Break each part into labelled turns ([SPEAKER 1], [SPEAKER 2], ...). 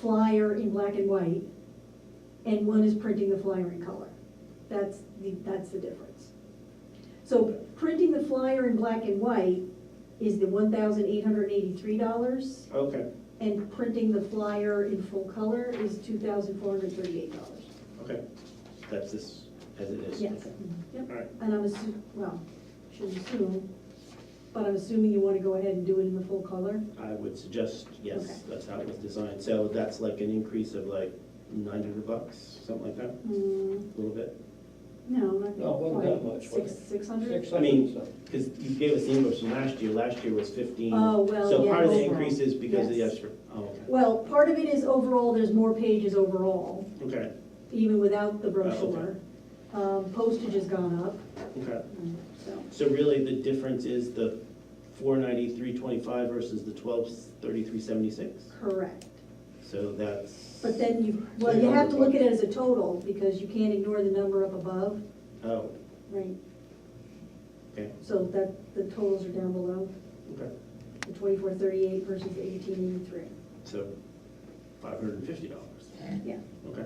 [SPEAKER 1] flyer in black and white, and one is printing the flyer in color. That's the, that's the difference. So printing the flyer in black and white is the one thousand eight hundred eighty-three dollars,
[SPEAKER 2] Okay,
[SPEAKER 1] and printing the flyer in full color is two thousand four hundred thirty-eight dollars.
[SPEAKER 2] okay,
[SPEAKER 3] That's this, as it is?
[SPEAKER 1] Yes,
[SPEAKER 3] Okay.
[SPEAKER 1] yep.
[SPEAKER 2] all right.
[SPEAKER 1] And I'm assu, well, should assume, but I'm assuming you wanna go ahead and do it in the full color?
[SPEAKER 3] I would suggest,
[SPEAKER 1] Okay.
[SPEAKER 3] yes, that's how it was designed. So that's like an increase of like nine hundred bucks, something like that,
[SPEAKER 1] Mm,
[SPEAKER 3] a little bit?
[SPEAKER 1] no, not
[SPEAKER 4] No, it wasn't that
[SPEAKER 1] quite.
[SPEAKER 4] much, was
[SPEAKER 1] Six,
[SPEAKER 4] it?
[SPEAKER 1] six hundred?
[SPEAKER 4] Six
[SPEAKER 3] I mean-
[SPEAKER 4] hundred,
[SPEAKER 3] Because you gave us the invoice from last year, last year was fifteen.
[SPEAKER 1] Oh, well,
[SPEAKER 3] So
[SPEAKER 1] yeah,
[SPEAKER 3] part of the
[SPEAKER 1] overall.
[SPEAKER 3] increase is because of the
[SPEAKER 1] Yes.
[SPEAKER 3] extra, oh, okay.
[SPEAKER 1] Well, part of it is overall, there's more pages overall,
[SPEAKER 3] Okay,
[SPEAKER 1] even without the
[SPEAKER 3] okay.
[SPEAKER 1] brochure. Um, postage has gone up,
[SPEAKER 3] okay.
[SPEAKER 1] mm, so,
[SPEAKER 3] So really, the difference is the four ninety-three twenty-five versus the twelve thirty-three seventy-six?
[SPEAKER 1] correct.
[SPEAKER 3] So that's.
[SPEAKER 1] But then you, well, you have to look at it as a total, because you can't ignore the number up above.
[SPEAKER 3] Oh,
[SPEAKER 1] Right.
[SPEAKER 3] okay,
[SPEAKER 1] So that, the totals are down below,
[SPEAKER 3] okay.
[SPEAKER 1] the twenty-four thirty-eight versus eighteen eighty-three.
[SPEAKER 3] So five hundred and fifty dollars,
[SPEAKER 1] Yeah.
[SPEAKER 3] okay.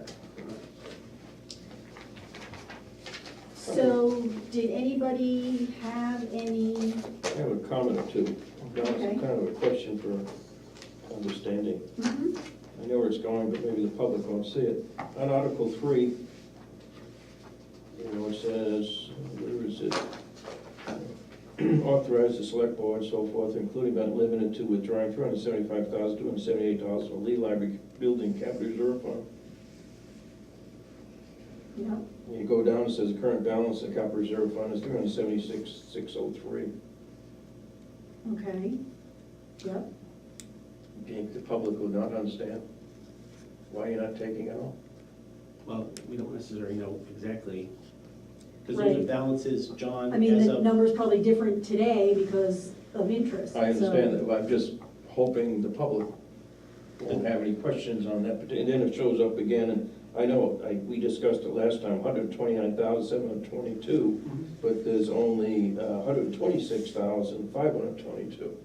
[SPEAKER 1] So, did anybody have any,
[SPEAKER 4] so. I have a comment or two. Now, it's
[SPEAKER 1] Okay.
[SPEAKER 4] kind of a question for understanding.
[SPEAKER 1] Mhm.
[SPEAKER 4] I know where it's going, but maybe the public won't see it. On Article three, you know, it says, where is it? Authorize the select board, so forth, including but not limited to withdrawing three hundred seventy-five thousand, two hundred seventy-eight dollars from Lee Library Building Capital Reserve Fund.
[SPEAKER 1] no?
[SPEAKER 4] And you go down, it says the current balance of capital reserve fund is three hundred seventy-six, six oh three.
[SPEAKER 1] Okay. Yep.
[SPEAKER 4] think the public will not understand why you're not taking out?
[SPEAKER 3] Well, we don't necessarily know exactly, because those are
[SPEAKER 1] Right.
[SPEAKER 3] balances, John,
[SPEAKER 1] I mean,
[SPEAKER 3] as
[SPEAKER 1] the
[SPEAKER 3] of-
[SPEAKER 1] number's probably different today because of interest,
[SPEAKER 4] I
[SPEAKER 1] so-
[SPEAKER 4] understand that, but I'm just hoping the public won't have any questions on that, but and then it shows up again, and I know, I, we discussed it last time, hundred twenty-nine thousand seven hundred twenty-two, but there's only uh, hundred twenty-six thousand five hundred twenty-two.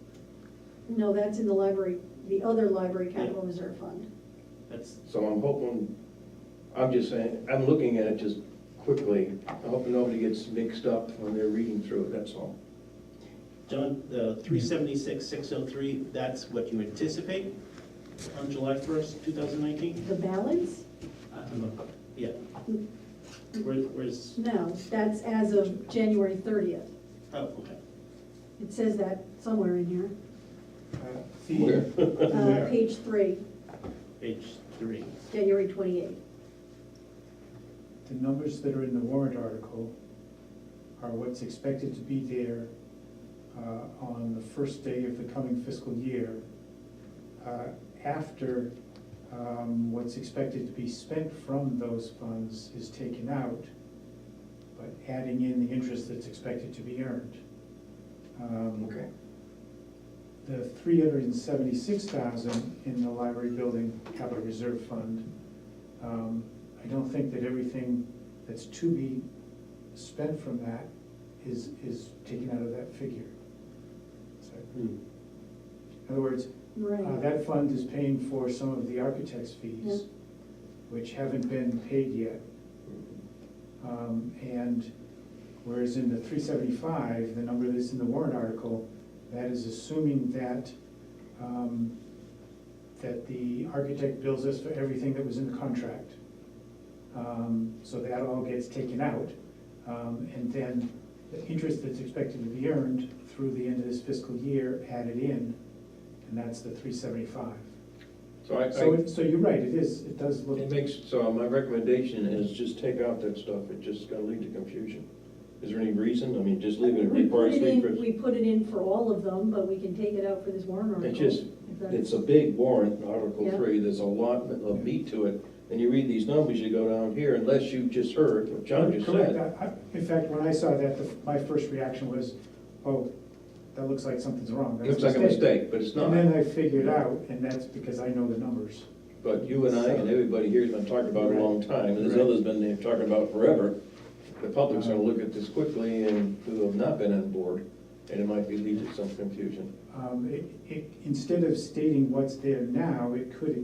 [SPEAKER 1] No, that's in the library, the other library capital reserve fund.
[SPEAKER 3] That's,
[SPEAKER 4] So I'm hoping, I'm just saying, I'm looking at it just quickly, I hope nobody gets mixed up when they're reading through it, that's all.
[SPEAKER 3] John, the three seventy-six, six oh three, that's what you anticipate on July first, two thousand nineteen?
[SPEAKER 1] The balance?
[SPEAKER 3] Yeah.
[SPEAKER 1] Mm.
[SPEAKER 3] Where, where's,
[SPEAKER 1] No, that's as of January thirtieth.
[SPEAKER 3] oh, okay.
[SPEAKER 1] It says that somewhere in here.
[SPEAKER 4] Where?
[SPEAKER 1] Uh, page three,
[SPEAKER 3] Page three.
[SPEAKER 1] January twenty-eighth.
[SPEAKER 5] The numbers that are in the warrant article are what's expected to be there uh, on the first day of the coming fiscal year, uh, after um, what's expected to be spent from those funds is taken out, but adding in the interest that's expected to be earned. Um,
[SPEAKER 4] Okay.
[SPEAKER 5] the three hundred and seventy-six thousand in the library building capital reserve fund, um, I don't think that everything that's to be spent from that is, is taken out of that figure. So,
[SPEAKER 3] Hmm.
[SPEAKER 5] In other words, uh,
[SPEAKER 1] Right.
[SPEAKER 5] that fund is paying for some of the architect's fees,
[SPEAKER 1] Yeah.
[SPEAKER 5] which haven't been paid yet. Um, And whereas in the three seventy-five, the number that's in the warrant article, that is assuming that, um, that the architect bills us for everything that was in the contract. Um, So that all gets taken out. Um, And then the interest that's expected to be earned through the end of this fiscal year added in, and that's the three seventy-five.
[SPEAKER 4] So I,
[SPEAKER 5] So,
[SPEAKER 4] I,
[SPEAKER 5] it- so you're right, it is, it does look.
[SPEAKER 4] It makes, so my recommendation is just take out that stuff, it's just gonna lead to confusion. Is there any reason, I mean, just leave it at
[SPEAKER 1] We put
[SPEAKER 4] requires
[SPEAKER 1] it in,
[SPEAKER 4] request.
[SPEAKER 1] we put it in for all of them, but we can take it out for this warrant article.
[SPEAKER 4] It's just,
[SPEAKER 1] if that's-
[SPEAKER 4] it's a big warrant, Article
[SPEAKER 1] Yeah.
[SPEAKER 4] Three, there's a lot of meat to it, and you read these numbers, you go down here, unless you just heard what John just
[SPEAKER 5] Correct.
[SPEAKER 4] said.
[SPEAKER 5] I- I- In fact, when I saw that, the- my first reaction was, oh, that looks like something's wrong.
[SPEAKER 4] It
[SPEAKER 5] That's
[SPEAKER 4] Looks like a mistake, but it's
[SPEAKER 5] And then
[SPEAKER 4] not,
[SPEAKER 5] I figured out, and that's because I know the numbers.
[SPEAKER 4] but you and I and everybody here's been talking about it a long time, and there's
[SPEAKER 5] Right.
[SPEAKER 4] others been there talking about it forever. The public's gonna look at this quickly and who have not been on board, and it might be lead to some confusion.
[SPEAKER 5] Um, it- it- Instead of stating what's there now, it could